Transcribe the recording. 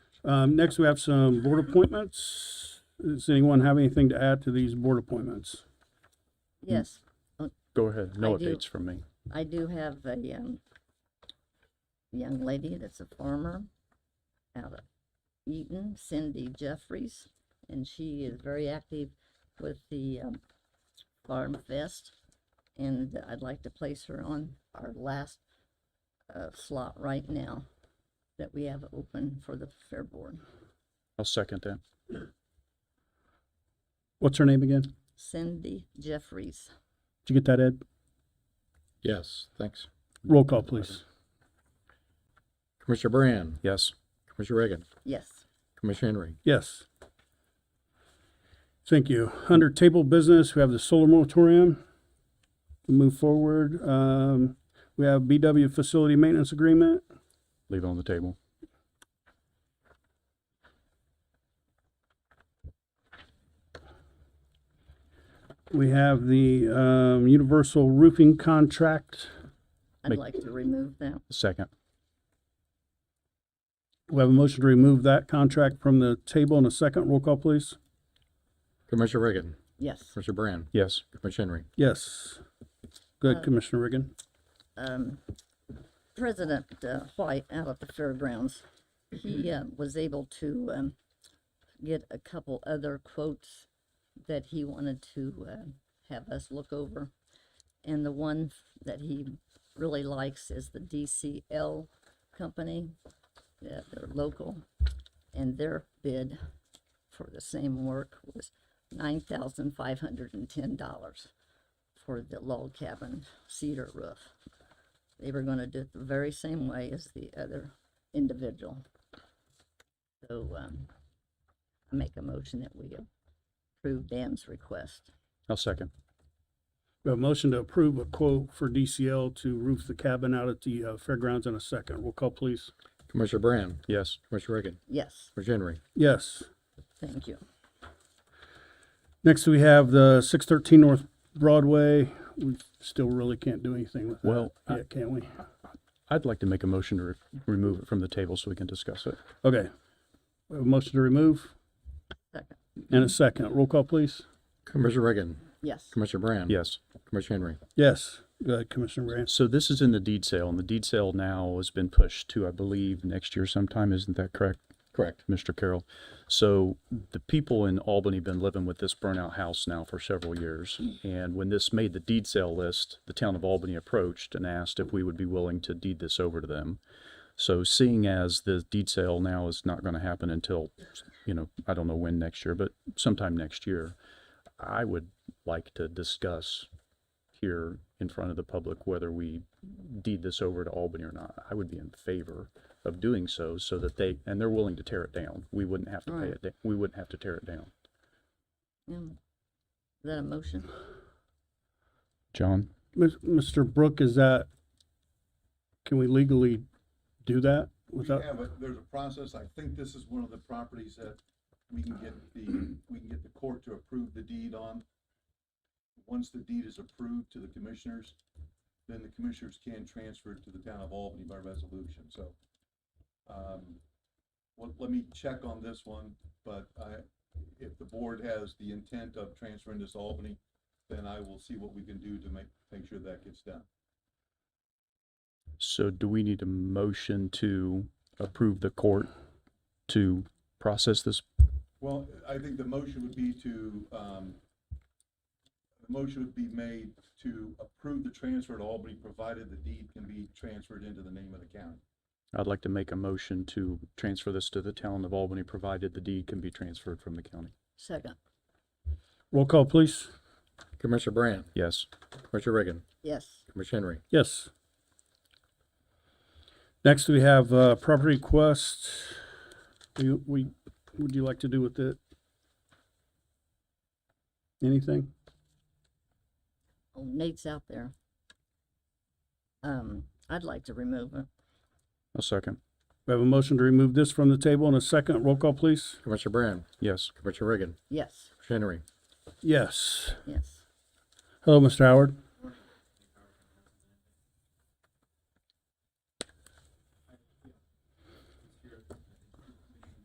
Um, next, we have some board appointments. Does anyone have anything to add to these board appointments? Yes, Go ahead, no I do. updates from me. I do have a, um, young lady that's a farmer out of Eaton, Cindy Jeffries, and she is very active with the, um, Farm Fest. And I'd like to place her on our last, uh, slot right now that we have open for the Fair Board. I'll second that. What's her name again? Cindy Jeffries. Did you get that, Ed? Yes, thanks. Roll call, please. Commissioner Brand, Yes, Commissioner Reagan, Yes, Commissioner Henry, Yes. Thank you. Under table business, we have the solar moratorium. Move forward. Um, we have BW facility maintenance agreement. leave it on the table. We have the, um, universal roofing contract. I'd Make- like to remove that. Second, We have a motion to remove that contract from the table in a second. Roll call, please. Commissioner Reagan, Yes. Commissioner Brand, yes, Commissioner Henry, Yes. Good, Commissioner Riggin. um, President uh, White out at the fairgrounds, he uh, was able to um, get a couple other quotes that he wanted to uh, have us look over. And the one that he really likes is the DCL company. Yeah, they're local, and their bid for the same work was nine thousand five hundred and ten dollars for the log cabin cedar roof they were gonna do it the very same way as the other individual. So, um, I make a motion that we approve Dan's request. I'll second. We have a motion to approve a quote for DCL to roof the cabin out at the uh, fairgrounds in a second. Roll call, please. Commissioner Brand, Yes, Commissioner Reagan, Yes, Commissioner Henry, Yes. thank you. Next, we have the six thirteen North Broadway. We still really can't do anything with that. Well, I- Yeah, can't we? I'd like to make a motion to re- remove it from the table so we can discuss it. Okay. We have a motion to remove Second. and a second. Roll call, please. Commissioner Reagan, Yes, Commissioner Brand, Yes, Commissioner Henry, Yes. Go ahead, Commissioner Branch. so this is in the deed sale, and the deed sale now has been pushed to, I believe, next year sometime, isn't that correct? correct. Mr. Carroll. So the people in Albany been living with this burnout house now for several years. And when this made the deed sale list, the town of Albany approached and asked if we would be willing to deed this over to them. So seeing as the deed sale now is not going to happen until, you know, I don't know when next year, but sometime next year, I would like to discuss here in front of the public whether we deed this over to Albany or not. I would be in favor of doing so, so that they, and they're willing to tear it down. We wouldn't have to pay Right. it, da- we wouldn't have to tear it down. um, is that a motion? John? Mis- Mr. Brook, is that, can we legally do that We without? have, a- there's a process, I think this is one of the properties that we can get the, we can get the court to approve the deed on. Once the deed is approved to the commissioners, then the commissioners can transfer it to the town of Albany by resolution, so. um, Well, let me check on this one, but I, if the board has the intent of transferring this to Albany, then I will see what we can do to make, make sure that gets done. So do we need a motion to approve the court to process this? Well, I think the motion would be to, um, the motion would be made to approve the transfer to Albany, provided the deed can be transferred into the name of the county. I'd like to make a motion to transfer this to the town of Albany, provided the deed can be transferred from the county. Second, Roll call, please. Commissioner Brand, Yes, Commissioner Reagan, yes, Commissioner Henry, Yes. Next, we have uh, property request. Do you- we, would you like to do with it? Anything? oh, Nate's out there. Um, I'd like to remove it. a second. We have a motion to remove this from the table in a second. Roll call, please. Commissioner Brand, Yes, Commissioner Reagan, Yes, Commissioner Henry, Yes. yes, Hello, Mr. Howard.